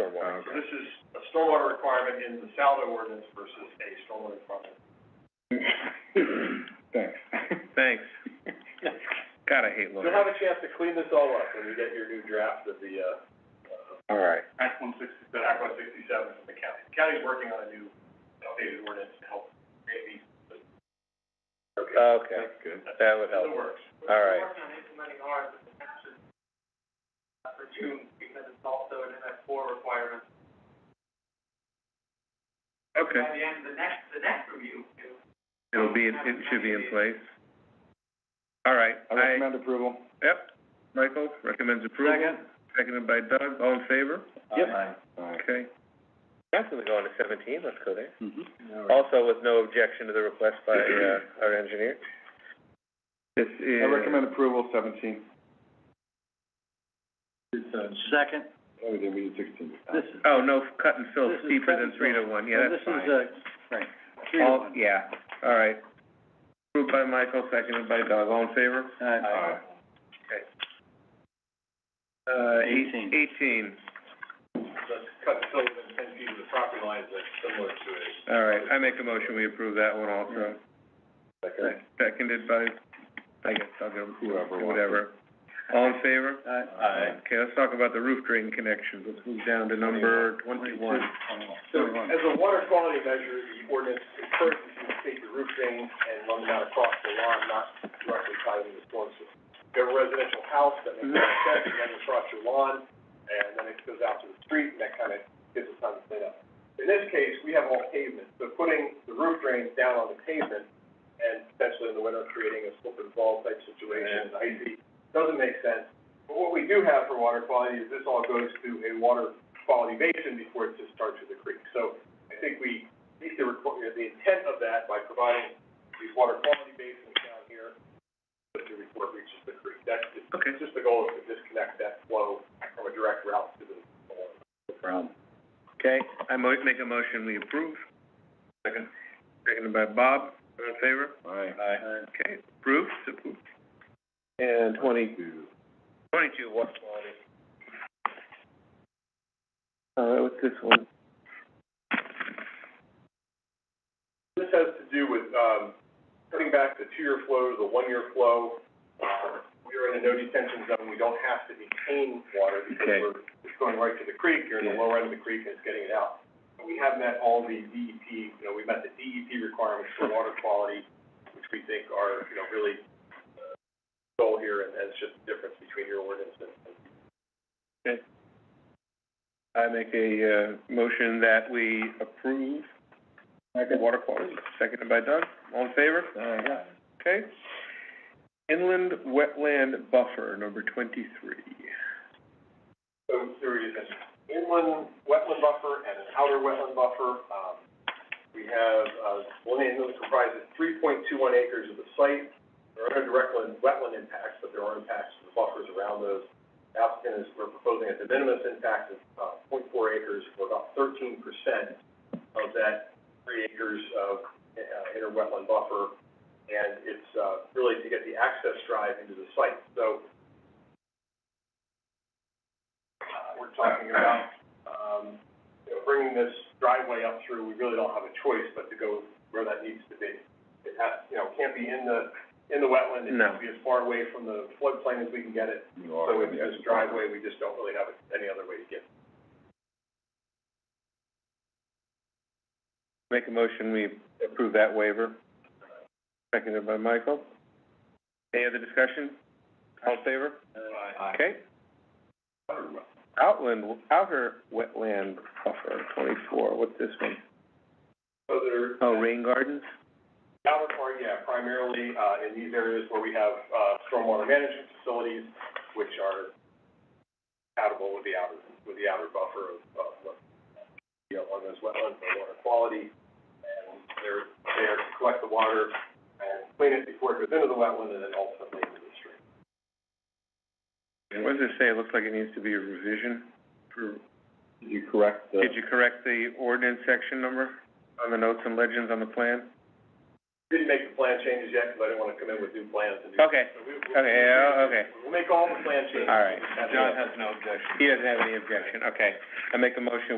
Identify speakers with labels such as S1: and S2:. S1: Stormwater.
S2: So this is a stormwater requirement in the Saldo ordinance versus a stormwater requirement.
S1: Thanks.
S3: Thanks. God, I hate
S2: You'll
S3: lawyers.
S2: have a chance to clean this all up when you get your new draft of the, uh,
S1: All right,
S2: Act one sixty-seven. Act one sixty-seven from the county. The County's working on a new updated ordinance to help create these.
S1: Oh, okay,
S2: That's good.
S1: that would help,
S2: In the works.
S1: all right.
S2: For June, because it's also an MS four requirement.
S3: Okay.
S2: the end of the next, the next review,
S3: It'll be, in- it should be in place. All right,
S1: I
S3: I,
S1: recommend approval.
S3: yep, Michael recommends approval. Seconded by Doug, all in favor?
S1: Yep.
S3: Okay.
S4: Definitely go on to seventeen, let's go there.
S1: All
S4: Also with no objection to the request by, uh, our engineer.
S3: This
S1: right,
S3: is.
S1: I recommend approval seventeen.
S5: uh, Second,
S1: Oh, we did, we did sixteen.
S5: this is,
S3: Oh, no, cut and fill
S5: This is
S3: steeper
S5: cut and
S3: than three to
S5: fill.
S3: one, Oh, yeah,
S5: this
S3: that's
S5: is,
S3: fine.
S5: uh, right, three to
S3: All-
S5: one.
S3: Yeah, all right. Approved by Michael, seconded by Doug, all in favor?
S5: Uh,
S1: Aye.
S3: Uh, eight-
S5: Eighteen.
S3: Eighteen,
S2: Let's cut the silver and ten feet of the property lines that's similar to a.
S3: all right, I make a motion, we approve that one also.
S1: Second.
S3: Seconded by, I guess, Doug, or
S1: Whoever wants it.
S3: whatever. All in favor?
S5: uh,
S3: Okay, let's talk about the roof drain connections. Let's move down to number twenty-one.
S2: So, as a water quality measure, the ordinance encourages you to take the roof drain and run them out across the lawn, not directly tied into the storm system. If you have a residential house that makes a set, you run it across your lawn, and then it goes out to the street, and that kind of gives it time to clean up. In this case, we have all pavement, so putting the roof drains down on the pavement and potentially in the winter creating a slip and fall type situation, icy, doesn't make sense. But what we do have for water quality is this all goes to a water quality basin before it just starts with the creek. So I think we meet the requ- uh, the intent of that by providing these water quality basins down here, but the report reaches the creek. That's the,
S3: Okay,
S2: it's just the goal is to disconnect that flow from a direct route to the.
S3: okay, I mo- make a motion, we approve. Second. Seconded by Bob, all in favor?
S1: Aye.
S3: Okay, approved, approved.
S4: And twenty,
S1: Two.
S3: Twenty-two, what?
S4: uh, what's this one?
S2: This has to do with, um, cutting back the two-year flow to the one-year flow. Uh, We are in a no detention zone, we don't have to detain water because
S3: Okay.
S2: we're, it's going right to the creek, you're in the
S3: Yeah.
S2: lower end of the creek and it's getting it out. We have met all the DEP, you know, we met the DEP requirements for water quality, which we think are, you know, really, uh, goal here, and that's just the difference between your ordinance and, and
S3: I make a, uh, motion that we approve the water quality, seconded by Doug, all in favor?
S1: Aye.
S3: Okay. Inland wetland buffer, number twenty-three.
S2: So there is an inland wetland buffer and an outer wetland buffer. Um, we have, uh, one end that comprises three point two one acres of the site. There are no direct wetland- wetland impacts, but there are impacts to the buffers around those. The Applicant is, we're proposing a de minimis impact of, uh, point four acres or about thirteen percent of that three acres of, uh, inner wetland buffer. And it's, uh, really to get the access drive into the site. So, uh, we're talking about, um, you know, bringing this driveway up through, we really don't have a choice but to go where that needs to be. It has, you know, can't be in the, in the wetland, it
S3: No.
S2: needs to be as far away from the floodplain as we can get it.
S1: You are.
S2: So with this driveway, we just don't really have any other way to get.
S3: Make a motion, we approve that waiver. Seconded by Michael. Any other discussion? All in favor? Okay. Outland, outer wetland buffer, twenty-four, what's this one?
S2: So there,
S3: Oh, rain gardens?
S2: outer part, yeah, primarily, uh, in these areas where we have, uh, stormwater management facilities, which are compatible with the outer, with the outer buffer of, of, what, you know, on those wetlands, the water quality. And they're there to collect the water and clean it before it goes into the wetland and then ultimately into the stream.
S3: What does it say? It looks like it needs to be a revision. for-
S1: Did you correct the?
S3: Did you correct the ordinance section number on the notes and legends on the plan?
S2: Didn't make the plan changes yet, because I didn't want to come in with new plans and do.
S3: Okay,
S2: So we- we-
S3: okay, yeah, okay.
S2: We'll make all the plan changes.
S3: All right.
S2: That's it.
S3: John has no objection. He doesn't have any objection, okay. I make a motion,